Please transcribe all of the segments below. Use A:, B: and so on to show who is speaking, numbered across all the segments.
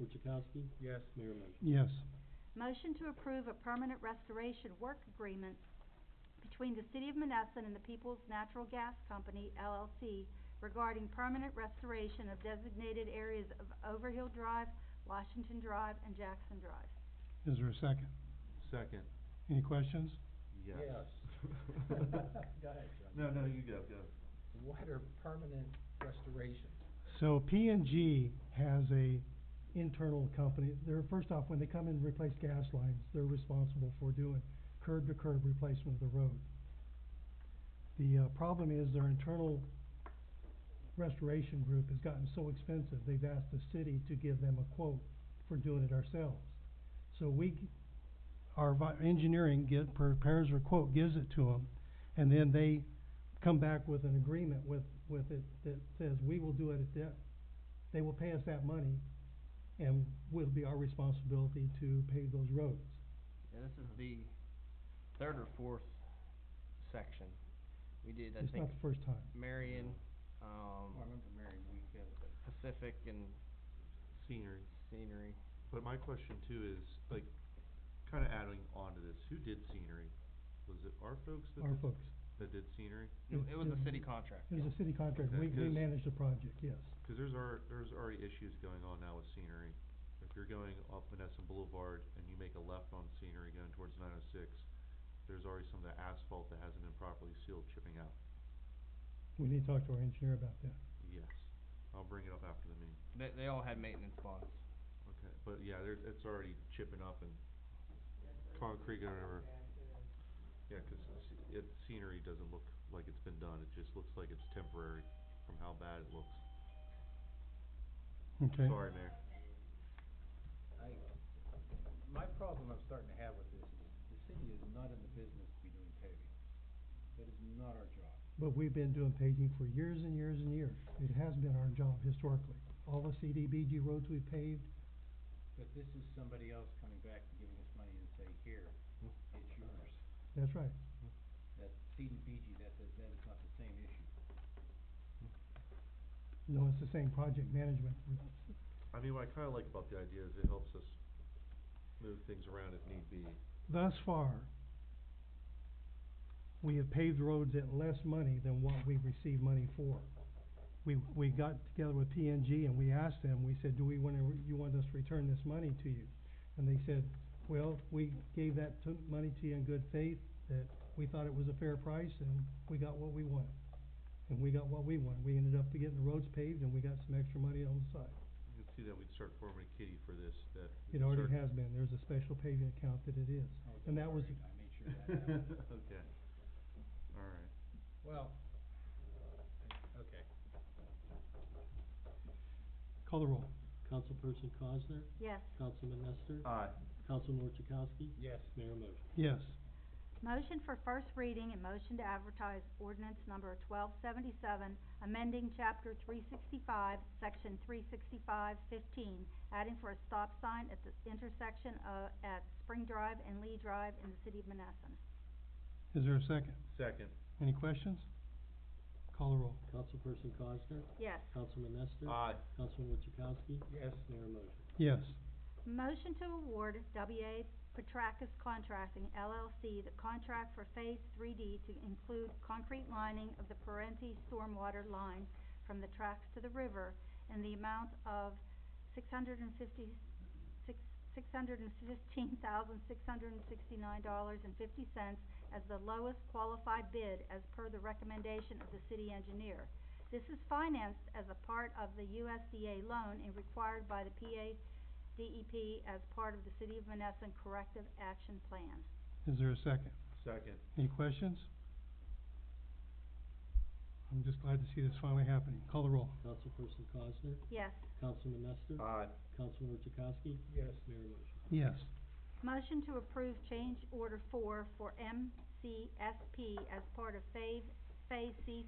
A: Orchakowski?
B: Yes.
A: Mayor motion.
C: Yes.
D: Motion to approve a permanent restoration work agreement between the City of Menneson and the Peoples Natural Gas Company LLC regarding permanent restoration of designated areas of Overhill Drive, Washington Drive, and Jackson Drive.
C: Is there a second?
B: Second.
C: Any questions?
B: Yes.
E: Go ahead, John.
B: No, no, you go, go.
E: What are permanent restorations?
C: So P and G has a internal company, they're, first off, when they come in and replace gas lines, they're responsible for doing curb to curb replacement of the road. The, uh, problem is their internal restoration group has gotten so expensive, they've asked the city to give them a quote for doing it ourselves. So we, g- our vi- engineering get, prepares a quote, gives it to them, and then they come back with an agreement with, with it that says, we will do it at that, they will pay us that money, and will be our responsibility to pave those roads.
F: Yeah, this is the third or fourth section. We did, I
C: It's
F: think,
C: not the first time.
F: Marion,
E: Oh, I
F: um,
E: remember Mary, we got
F: Pacific and
B: Scenery.
F: Scenery.
B: But my question too is, like, kinda adding on to this, who did scenery? Was it our folks that
C: Our
B: did,
C: folks.
B: that did scenery?
F: No,
C: It-
F: It was
C: it-
F: a city contract.
C: It was a city contract,
B: Okay,
C: we, we
B: 'cause-
C: managed the project, yes.
B: Cause there's our, there's already issues going on now with scenery. If you're going off Menneson Boulevard and you make a left on scenery going towards nine oh six, there's already some of the asphalt that hasn't been properly sealed chipping out.
C: We need to talk to our engineer about that.
B: Yes, I'll bring it up after the meeting.
F: They, they all had maintenance bonds.
B: Okay, but yeah, there's, it's already chipping up and concrete and whatever. Yeah, 'cause it's, it, scenery doesn't look like it's been done, it just looks like it's temporary from how bad it looks.
C: Okay.
B: Sorry, Mayor.
E: I, my problem I'm starting to have with this is, the city is not in the business to be doing paving. That is not our job.
C: But we've been doing paving for years and years and years. It has been our job historically. All the CDBG roads we paved,
E: But this is somebody else coming back and giving us money and say, here, it's yours.
C: that's right.
E: That CDBG, that, that, that is not the same issue.
C: No, it's the same project management.
B: I mean, what I kinda like about the idea is it helps us move things around if need be.
C: Thus far, we have paved roads at less money than what we received money for. We, we got together with P and G and we asked them, we said, do we wanna, re- you want us to return this money to you? And they said, well, we gave that to, money to you in good faith, that we thought it was a fair price and we got what we wanted. And we got what we wanted. We ended up getting the roads paved and we got some extra money on the side.
B: You can see that we'd start forming a kitty for this, that. we
C: It
B: could
C: already
B: start-
C: has been. There's a special paving account that it is.
E: Oh,
C: And
E: don't
C: that was-
E: worry, I made sure that happened.
B: Okay, alright.
E: Well, okay.
C: Call the roll.
A: Councilperson Cosner?
D: Yes.
A: Councilman Nestor?
B: Aye.
A: Councilman Orchakowski?
E: Yes.
A: Mayor motion.
C: Yes.
D: Motion for first reading and motion to advertise ordinance number twelve seventy-seven, amending chapter three sixty-five, section three sixty-five fifteen, adding for a stop sign at the intersection, uh, at Spring Drive and Lee Drive in the city of Menneson.
C: Is there a second?
B: Second.
C: Any questions? Call the roll.
A: Councilperson Cosner?
D: Yes.
A: Councilman Nestor?
B: Aye.
A: Councilman Orchakowski?
E: Yes.
A: Mayor motion.
C: Yes.
D: Motion to award WA Petracas Contracting LLC the contract for Phase Three D to include concrete lining of the Parenti stormwater line from the tracks to the river in the amount of six hundred and fifty, six, six hundred and fifteen thousand, six hundred and sixty-nine dollars and fifty cents as the lowest qualified bid as per the recommendation of the city engineer. This is financed as a part of the USDA loan and required by the PA DEP E as part of the City of Menneson Corrective Action Plan.
C: Is there a second?
B: Second.
C: Any questions? I'm just glad to see this finally happening. Call the roll.
A: Councilperson Cosner?
D: Yes.
A: Councilman Nestor?
B: Aye.
A: Councilman Orchakowski?
E: Yes.
A: Mayor motion.
C: Yes.
D: Motion to approve change order four for MCSP as part of Phase, Phase C,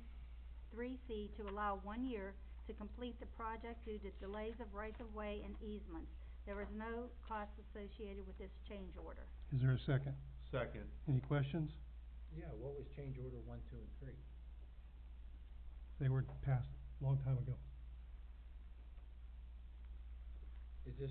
D: three C to allow one year to complete the project due to delays of rights-of-way and easements. There is no cost associated with this change order.
C: Is there a second?
B: Second.
C: Any questions?
E: Yeah, what was change order one, two, and three?
C: They were passed a long time ago.
E: Is this